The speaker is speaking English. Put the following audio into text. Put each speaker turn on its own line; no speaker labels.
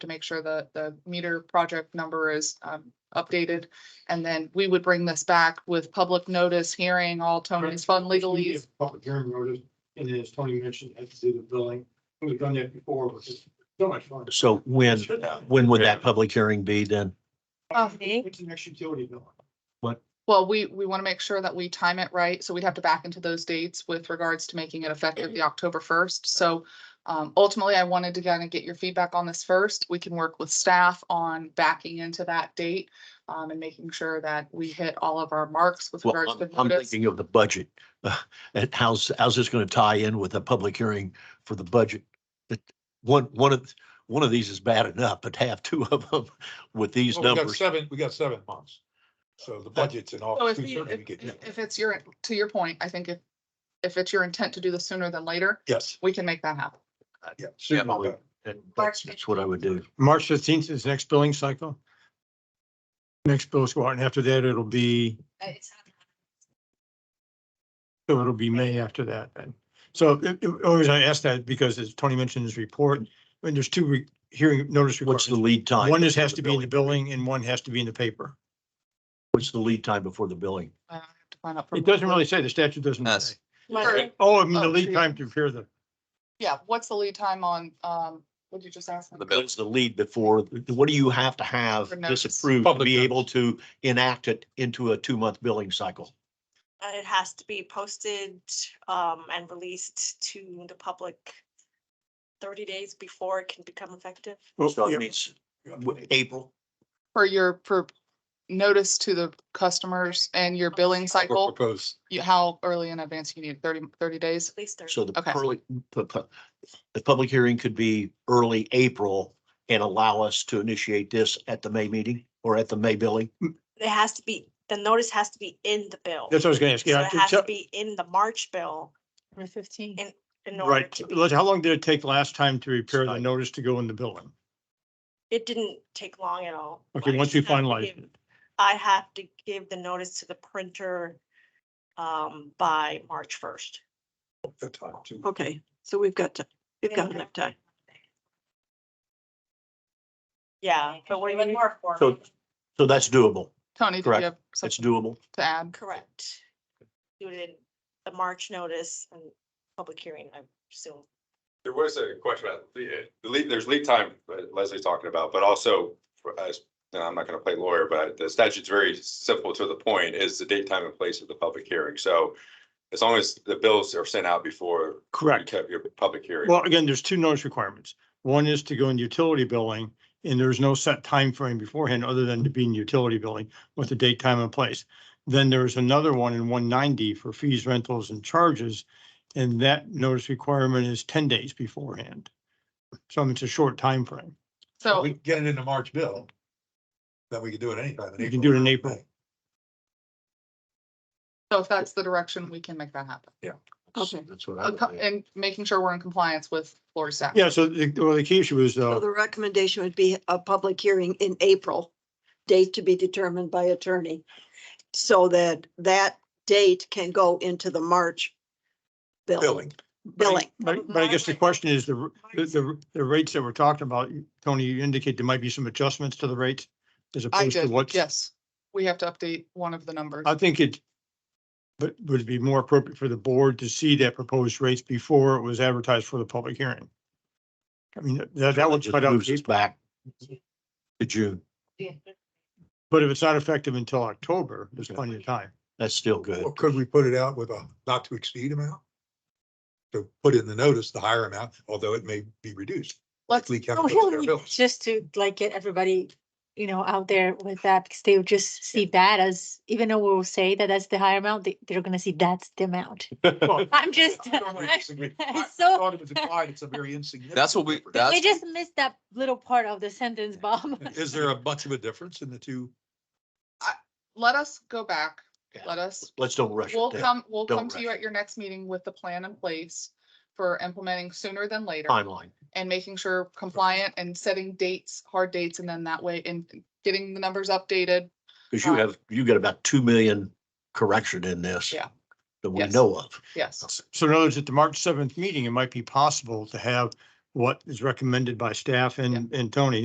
to make sure that the meter project number is um updated. And then we would bring this back with public notice, hearing all Tony's fund
We
legalese.
have Public hearing notice, and then as Tony mentioned, had to do the billing. We've done that before, which is so much fun.
So when,
Should have.
when would that public hearing be then?
Oh.
It's an extra utility bill.
Well, we we want to make sure that we time it right, so we'd have to back into those dates with regards to making it effective the October first. So um ultimately, I wanted to kind of get your feedback on this first. We can work with staff on backing into that date um and making sure that we hit all of our marks with
Well,
regards to
I'm- I'm
notice.
thinking of the budget. uh, And how's, how's this going to tie in with a public hearing for the budget? That one, one of, one of these is bad enough, but to have two of them with these
Well, we got
numbers.
Seven, we got seven months. So the budget's in
So
August,
if,
two
you-
thirty, we get,
if, if it's your, to your point, I think if, if it's your intent to do this sooner than later,
yes,
we can make that happen.
yeah.
Yeah,
soon
but
on
we-
that.
and That's, that's what I would do.
March fifteenth is next billing cycle. Next bills go out, and after that, it'll be,
uh,
so it'll be May after that then. So it- it- always I ask that because as Tony mentioned in his report, when there's two re- hearing notice
What's the
requirements.
lead time?
One just has to be in the
billing?
billing and one has to be in the paper.
What's the lead time before the billing?
I have to find out. for-
It doesn't really say, the statute doesn't
Yes.
say.
Or-
Oh, I mean, the
Oh,
lead
geez.
time to prepare the,
Yeah, what's the lead time on, um, what'd you just ask? me?
The bill.
What's the lead before, what do you have to have
For notice.
disapproved to
Public
be
notice.
able to enact it into a two-month billing cycle?
And uh, it has to be posted um and released to the public thirty days before it can become effective.
So
well,
it
yeah,
means w- April,
For your, for notice to the customers and your billing
We're
cycle,
proposed.
you, how early in advance you need, 30 30 days?
At least thirty.
so the
Okay.
early, the, pu- the public hearing could be early April and allow us to initiate this at the May meeting or at the May billing?
It has to be, the notice has to be in the bill.
That's what I was gonna ask.
So
Yeah,
it has to
tell-
be in the March bill
Fifteen.
in order
Right.
to be,
Look, How long did it take last time to repair the
Right.
notice to go in the billing?
it didn't take long at all.
Okay,
I
once
just
you
have to
finalize
give-
it.
I have to give the notice to the printer um by March first.
The time to-
Okay, so we've got, ti- we've got
Okay.
enough time.
Yeah, but what do you mean?
So, so that's doable.
Tony, did you
Correct.
have
It's
something
doable.
to add?
Correct. Do it in the March notice and public hearing, I assume.
There was a question about the, the lead, there's lead time that Leslie's talking about, but also for us, and I'm not gonna play lawyer, but the statute's very simple to the point is the date, time and place of the public hearing. So as long as the bills are sent out before you
Correct.
have your public hearing.
Well, again, there's two notice requirements. One is to go in utility billing and there's no set time frame beforehand other than to be in utility billing with the date, time and place. Then there's another one in one ninety for fees, rentals and charges. And that notice requirement is ten days beforehand. So I mean, it's a short time frame.
So
We get it in the March bill. Then we can do it anytime.
You can do it in April.
So if that's the direction, we can make that happen.
Okay.
That's what I
Uh,
would
co-
think.
And making sure we're in compliance with Florida staff.
Yeah, so the, well, the key issue is,
So
uh,
the recommendation would be a public hearing in April, date to be determined by attorney. So that that date can go into the March bill,
Billing.
billing.
But, but I guess the question is the, the- the, the rates that we're talking about, Tony, you indicate there might be some adjustments to the rates as
I
opposed to
did,
what's.
yes. We have to update one of the numbers.
I think it, but would it be more appropriate for the board to see that proposed rates before it was advertised for the public hearing? I mean, that, that would
Just
cut out,
Moves us back to June.
but if it's not effective until October, there's plenty of time.
That's still good.
Or could we put it out with a not to exceed amount? To put in the notice, the higher amount, although it may be reduced.
Let's-
Lee Kev
Oh,
puts their
he'll need
bills.
just to like get everybody, you know, out there with that, because they would just see that as, even though we'll say that that's the higher amount, they, they're gonna see that's the amount. I'm just,
I don't really disagree. I
So-
thought it was implied, It's a very insignificant.
That's what we-
difference.
that's-
we just missed that little part of the sentence, Bob.
Is there a much of a difference in the two?
Let us go back.
Yeah.
Let us
Let's don't rush. it.
We'll
Yeah.
come, we'll
Don't
come to you
rush
at your next meeting with the plan in place for implementing sooner than later
Timeline.
and making sure compliant and setting dates, hard dates, and then that way and getting the numbers updated.
Because you
Um,
have, you got about two million correction in this.
Yeah.
That we
Yes.
know of.
Yes.
So in other words, at the March seventh meeting, it might be possible to have what is recommended by staff and, and Tony